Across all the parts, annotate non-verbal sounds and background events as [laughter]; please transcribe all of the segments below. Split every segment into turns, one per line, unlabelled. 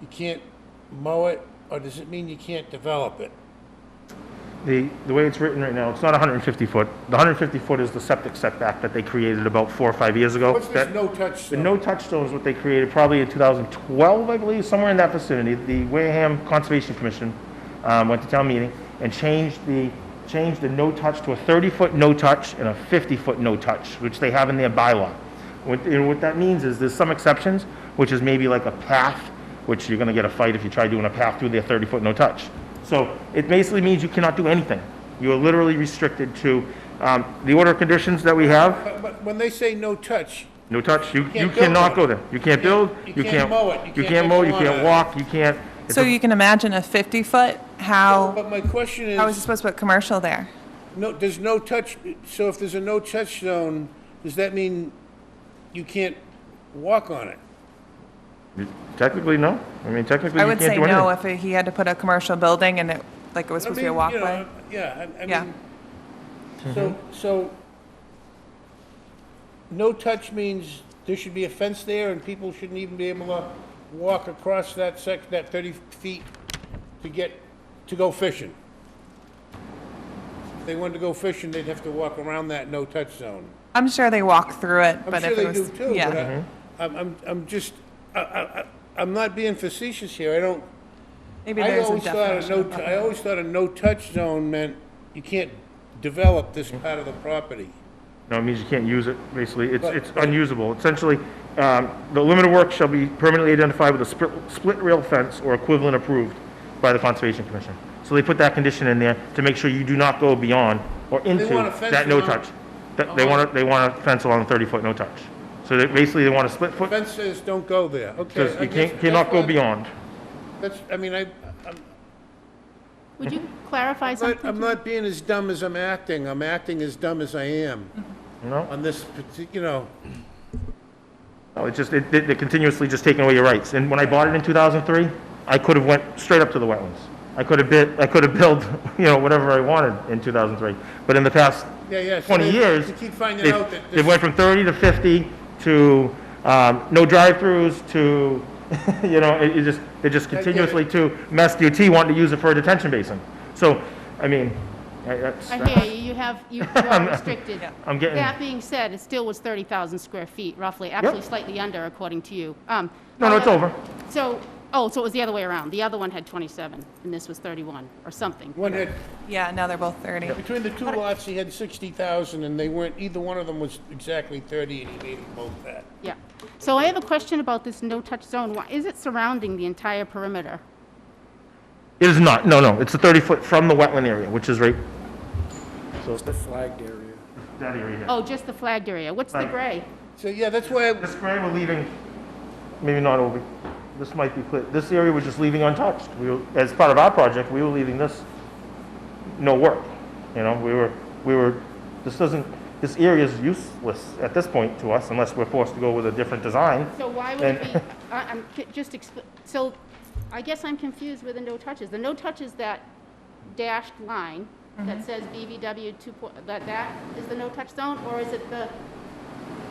you can't mow it, or does it mean you can't develop it?
The, the way it's written right now, it's not 150 foot. The 150 foot is the septic setback that they created about four or five years ago.
What's this
That-
no-touch
The
zone?
no touch zone is what they created probably in 2012, I believe, somewhere in that vicinity. The Wareham Conservation Commission um, went to town meeting and changed the, changed the no touch to a 30 foot no touch and a 50 foot no touch, which they have in their bylaw. What, and what that means is there's some exceptions, which is maybe like a path, which you're going to get a fight if you try doing a path through their 30 foot no touch. So it basically means you cannot do anything. You are literally restricted to um, the order of conditions that we have.
But, but when they say no touch,
No touch, you, you
can't build
cannot
on
go
it.
there. You can't build,
you
you
can't
can't.
mow it, you can't
You
make
can't mow,
a
you
lawn out
can't
of it.
walk, you can't. it's
So
a-
you can imagine a 50-foot, how,
but my question
how is it
is,
supposed to put commercial there?
no, there's no touch, so if there's a no-touch zone, does that mean you can't walk on it?
Technically, no. I mean, technically,
I
you
would
can't do
say
anything.
no if he had to put a commercial building and it, like it was
I
supposed to be a
mean, you know,
walkway.
Yeah, I- I
Yeah.
mean, so, so, no touch means there should be a fence there and people shouldn't even be able to walk across that sec, that thirty feet to get, to go fishing. If they wanted to go fishing, they'd have to walk around that no-touch zone.
I'm sure they walk through it,
I'm
but
sure
if it
they do
was,
too, but
yeah.
I- I'm, I'm, I'm just, I, I, I- I'm not being facetious here, I don't,
Maybe
I
there's a
always thought a
definition.
no,
of
I
buffer.
always thought a no-touch zone meant you can't develop this part of the property.
No, it means you can't use it, basically. It's,
But-
it's unusable. Essentially, um, the limited work shall be permanently identified with a split, split rail fence or equivalent approved by the Conservation Commission. So they put that condition in there to make sure you do not go beyond or into
want a fence
that no
around- Uh-huh.
touch. That- They want, a- they want a fence along 30-foot no touch. So they, basically, they want a split foot,
Fence says don't go there, okay.
because
I
you can't,
guess
cannot
that's
go
why-
beyond.
That's, I mean, I, I'm-
Would you clarify
but
something?
I'm not being as dumb as I'm acting, I'm acting as dumb as I am
No?
on this particular, you know,
No, it's just, Oh, it- they're continuously just taking away your rights. And when I bought it in 2003, I could have went straight up to the wetlands. I could have bit, I could have [laughs] built, you know, whatever I wanted in 2003. But in the past
yeah, yeah. so
20
they-
years,
You keep finding out that,
they
this-
went from 30 to 50 to um, no drive-throughs to, [laughs] you know, it it just, they just
get it.
continuously to Mass DOT wanting to use it for a detention basin. So, I mean, I- that's,
I hear you, you have, you are restricted.
[laughs] I'm getting,
That being said, it still was 30,000 square feet roughly, actually slightly under according to you. Um,
no, no, it's
however-
over.
So, oh, so it was the other way around. The other one had 27 and this was 31 or something.
one had,
Yeah, now they're both 30.
between the two lots, he had sixty thousand and they weren't, either one of them was exactly thirty and he made them both that.
Yeah. So I have a question about this no-touch zone. Why is it surrounding the entire perimeter?
It is not, no, no, it's a 30-foot from the wetland area, which is right, so it's
flagged area.
that area here.
Oh, just the flagged area. What's the
Right.
gray?
So, yeah, that's why, I-
This gray we're leaving, maybe not over, this might be clear, this area we're just leaving untouched. We, were- as part of our project, we were leaving this no work, you know, we were, we were, this doesn't, this area is useless at this point to us unless we're forced to go with a different design.
So why would
[laughs]
it be,
And-
I- I'm, c- just, expl- so I guess I'm confused with the no touches. The no touches, that dashed line
Mm-hmm.
that says BVW two, po- that, that is the no touch zone? Or is it the,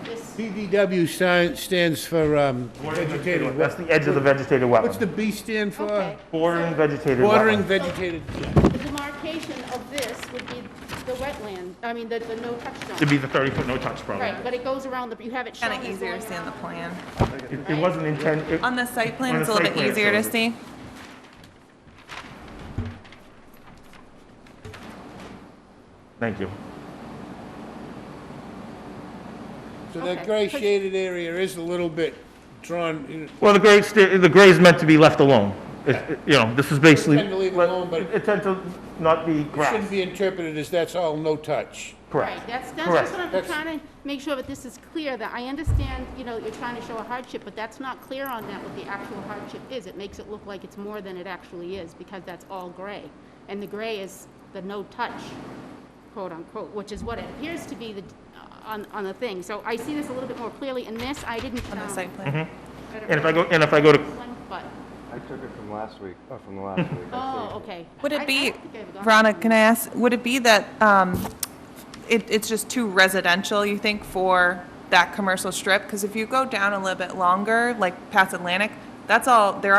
this,
BVW sign stands for, um, vegetated
That's
wetland.
the edge of the vegetated
What's
wetland,
the B stand
uh,
for?
okay.
bordering vegetated
Watering
wetland.
vegetated,
The demarcation of this would be the wetland, I mean, the, the no touch
To
zone.
be the 30-foot no-touch problem.
Right, but it goes around the, you have it shown.
Kind of
as
easier to
going
see on the
around.
plan.
It it wasn't intended,
On the site plan,
On
it's a
the
little
site plan,
bit
it
easier to
shows it.
see.
thank you.
so that
Okay.
gray shaded area is a little bit drawn, you know,
Well, the gray, sta- the gray is meant to be left alone. It- it- You know, this is basically.
tend to leave it alone, but-
It it tends to not be
shouldn't
grass,
be interpreted as that's all no touch.
correct.
Right, that's, that's
Correct.
just what I'm
That's-
trying to make sure that this is clear, that I understand, you know, you're trying to show a hardship, but that's not clear on that what the actual hardship is. It makes it look like it's more than it actually is, because that's all gray. And the gray is the no-touch, quote-unquote, which is what it appears to be the, uh, on, on the thing. So I see this a little bit more clearly, in this, I didn't.
On the
um,
site
Mm-hmm.
plan.
I don't
And if I
know
go, and if I go to,
this one, But,
I took it from last week, or from the last week.
oh, okay.
Would
I- I
it be,
don't think I ever got
Rhonda,
that.
can I ask, would it be that um, it, it's just too residential, you think, for that commercial strip? Because if you go down a little bit longer, like past Atlantic, that's all, there